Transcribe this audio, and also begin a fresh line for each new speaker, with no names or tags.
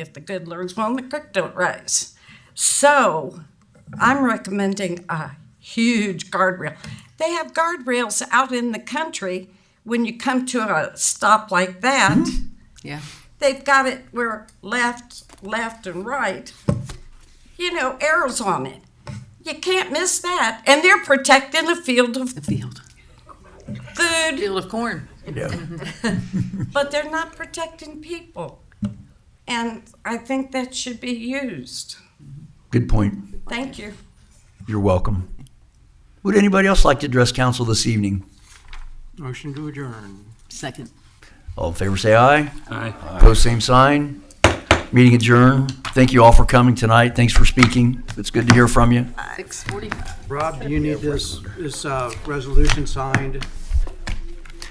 if the good Lord's willing, the creek don't rise. So I'm recommending a huge guardrail. They have guardrails out in the country. When you come to a stop like that,
Yeah.
they've got it where left, left, and right, you know, arrows on it. You can't miss that. And they're protecting a field of
The field.
food,
Field of corn.
but they're not protecting people. And I think that should be used.
Good point.
Thank you.
You're welcome. Would anybody else like to address council this evening?
Motion to adjourn.
Second.
All in favor, say aye.
Aye.
Post same sign. Meeting adjourned. Thank you all for coming tonight. Thanks for speaking. It's good to hear from you.
Six forty-five.
Rob, do you need this, this uh, resolution signed?